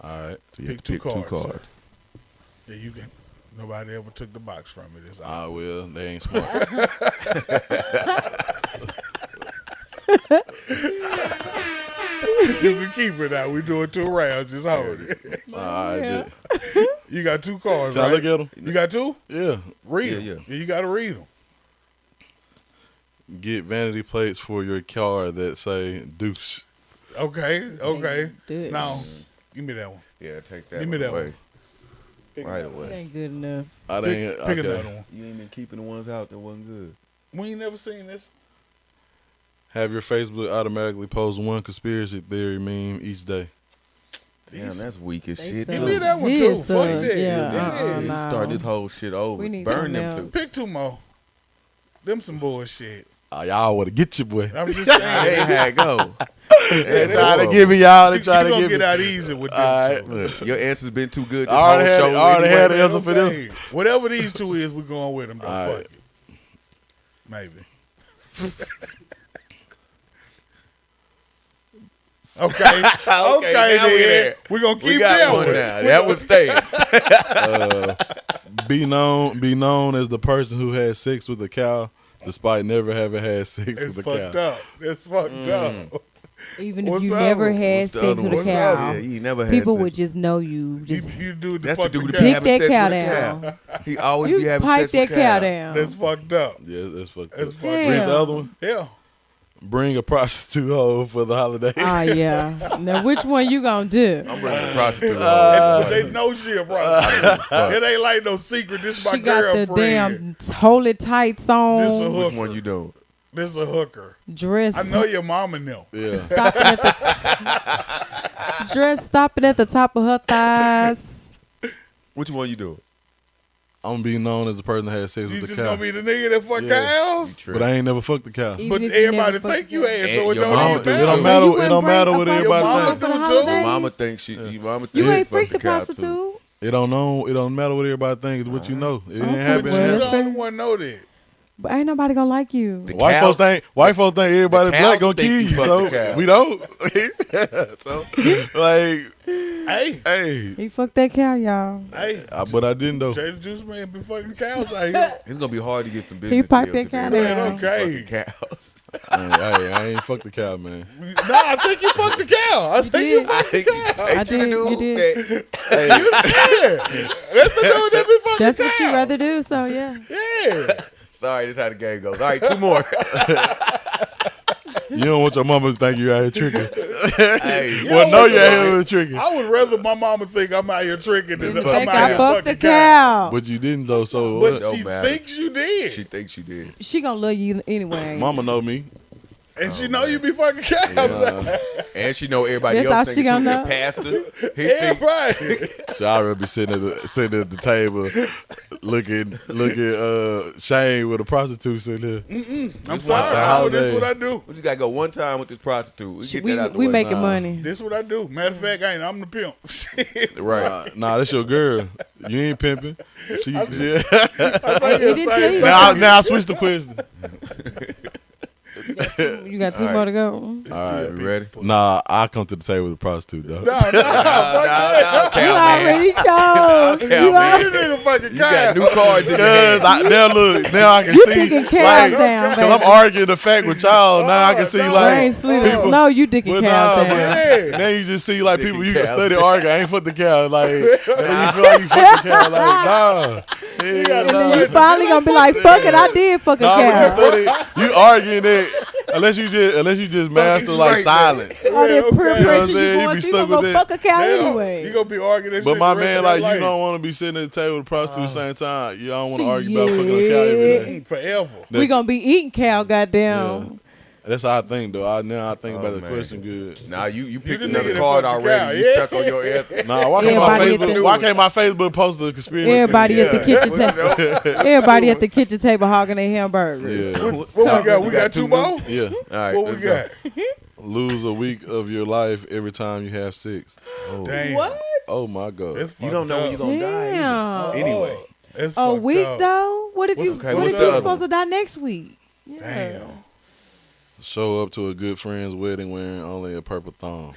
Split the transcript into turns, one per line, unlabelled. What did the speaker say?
All right.
So you
pick
have
two
to
cards.
Yeah, you can. Nobody ever took the box from it. It's
I will. Ah, They ain't smart.
you can keep it out. We doing two rounds. Just hold it.
All right.
Yeah.
bet.
you got two cards,
Can I
right?
look at 'em?
You got two.
Yeah.
Read
Yeah,
'em.
yeah.
You got to read them.
Get vanity plates for your car that say Deuce.
Okay. Okay.
do it.
Now, give me that one.
Yeah, take that
Give me
one
that
away.
Pick
Right
That
away.
ain't good enough.
I
Pick,
didn't.
pick
okay.
another one.
You ain't been keeping the ones out that wasn't good.
We ain't never seen this.
Have your Facebook automatically post one conspiracy theory meme each day.
Damn,
These-
that's weak as
They
shit.
suck.
Give
too.
me that one
He
too.
is,
Fuck
uh,
that.
yeah,
Yeah.
uh-uh.
You
no.
start this whole shit over.
We need
Burn them
something
two.
Pick two more. Them some bullshit.
Ah, y'all want to get you, boy.
I'm just saying.
They had go.
They try to give me y'all. They
you
try to
gonna
give
get
me.
out easy with them
All
two.
right.
Look, your answer's been too good. This
I already
whole
had
show
it. I already
anyway.
had it. answer for them.
Okay. Whatever these two is, we're going with them. Though.
All
Fuck
right.
it. Maybe. okay. okay.
now we
then.
there.
We're going to
We
keep
got
that
one
one.
now. That was staying.
Be known. Be known as the person who had sex with a cow, despite never having had sex
It's
with a
fucked
cow.
up. It's fucked
Mm.
up.
Even if
What's
you
the
never
other one?
had
What's the
sex with
other
a
one? What's the
cow,
Yeah, you never had
people
sex.
would just know you. Just
You, you do the
That's the
fucking
dude that
cow.
be
Dick that
having sex
cow
with
down.
a cow. He always
you
be Oh, having
pipe
sex
that
with
cow
cow.
down.
That's fucked up.
Yeah, that's fucked
That's
up.
fucked
Read the
Damn.
other one.
Yeah.
Bring a prostitute home for the holiday.
Ah, yeah. Now, which one you gonna do?
I'm bringing the prostitute. Uh,
they know she a prostitute. it ain't like no secret. This my
She got the
girlfriend.
damn t- holy tights
This a
on,
Which
hooker.
one you doing?
This is a hooker.
dress,
I know your mama know.
yeah.
stopping at the dress, stopping at the top of her thighs.
Which one you doing?
I'm gonna be known as the person that had sex
You
with
just
the cow.
gonna be the nigga that fuck
Yeah.
cows?
but I ain't never fucked the cow.
Even
But
if you never
everybody
fuck
think you
with-
ass,
And
so it
your
don't
mama
even
do. It
It
matter.
don't
you
matter.
wouldn't
It don't
bring
matter
a
what
fucking
everybody
mama
thinks.
do
for the
too. Your
Your
holidays.
mama think she. Your mama think
You
she
ain't
fucked
freak the
cow, too.
prostitute.
It don't know. It don't matter what everybody thinks. It's what you know. It ain't
Okay.
But you
happening.
Well,
the
that's fair.
only one know that.
But ain't nobody gonna like you.
The
White
cows-
folks think white folks think everybody
the
black
cows
gonna
think
kill
you
you,
fucked the
so
cow.
we don't. so like,
Hey,
hey,
He fucked that cow, y'all.
hey,
I, but I didn't though.
Jay the Juice Man be fucking cows out here.
It's gonna be hard to get some business.
piped
deals
that cow
if everybody
down.
think you
Okay.
fucking cows.
I ain't, I ain't- I ain't fuck the cow, man.
no, I think you fucked the cow. I think you
did.
fucked
I think
I
ain't you the
did, you
dude
did.
that-
the dude that be fucking
That's
cows.
what you rather do. So yeah,
Yeah.
Sorry, this is how the game goes. All right, two more.
You don't want your mama to think you out here tricking.
hey,
well,
don't
no,
want
you
your
out
mama-
here tricking,
I would rather my mama think I'm out here tricking than
you
I'm
think
out
I
here
fucked the
fucking cows.
cow.
but you didn't though. So
But
what?
Don't
she
matter.
thinks you did.
she thinks you did.
She gonna love you anyway.
mama know me.
and she know you be fucking cows.
And she know everybody
That's how
else
she
thinking
gonna
she's
know.
a pastor. He
Yeah,
think
right.
So I rather be sitting at the sitting at the table, looking looking uh Shane with a prostitute sitting there.
I'm sorry. I know this what I do.
we just gotta go one time with this prostitute. We
She-
get
we
that out the
we
way.
making
Nah.
money.
This what I do. Matter of fact, I ain't. I'm the pimp.
Oh,
Right? nah, that's your girl. You ain't pimping. She, yeah.
I
He didn't tell you.
now, I- now I switch the question.
You got two
All right.
more to go.
All right,
You ready?
Nah, I come to the table with a prostitute though.
No, no, fuck that.
You already chose.
Cow
You
man.
already
You nigga fucking
You got
cow.
new cards in your
Cause
hand.
I, now look, now I can see,
picking
like,
cows down,
cause I'm
baby.
arguing the fact with y'all. Now I can see,
No,
I ain't
like,
sleeping.
people-
No, you dicking
but
cows
nah,
down.
but now you just see like
Picking
people you can
cows
study
down.
arguing. I ain't fuck the cow, like, and then you feel like you fuck the cow, like, nah, yeah,
And
nah.
then you finally gonna be like, fuck it, I did fuck a
Nah, when you
cow.
study, you arguing it unless you just unless you just master like
right there.
silence.
All
Yeah,
that
okay.
peer
You know what
I'm
pressure
saying?
you
You be
going through,
stuck
you gonna
with
go
that.
fuck a cow
Damn,
anyway.
You gonna be arguing that
But
shit.
my
the rest
man,
of your
like you
life.
don't want to be sitting at the table with a prostitute at
Uh,
the same time. You don't want to argue about
Shit.
fucking a cow every day.
Mm, forever.
we gonna be eating cow, goddamn.
That's how I think though. I now I think
Oh,
about the
man.
question good.
Now you you picked
the nigga
another
that
card
fucked the
already.
cow,
You
yeah.
stuck on your answer.
Nah, why can't my
Everybody at
Facebook
the-
why can't my Facebook post the conspiracy?
Everybody at the
Yeah.
kitchen
What
table.
you know?
Everybody at the kitchen table hogging their hamburgers.
Yeah.
What, what we got? We got, two more.
Yeah.
All right,
What we
let's
got?
Lose a week of your life every time you have sex.
Damn.
What?
Oh my god.
It's
Go. You don't
fucked
know when
up.
you're gonna die. either.
Damn.
Anyway,
It's
A
fucked
week
up.
though? What if you
What's- okay,
what
what's
if
the
you
other
supposed
one?
to die next week? Yeah.
Damn.
Show up to a good friend's wedding wearing only a purple thong.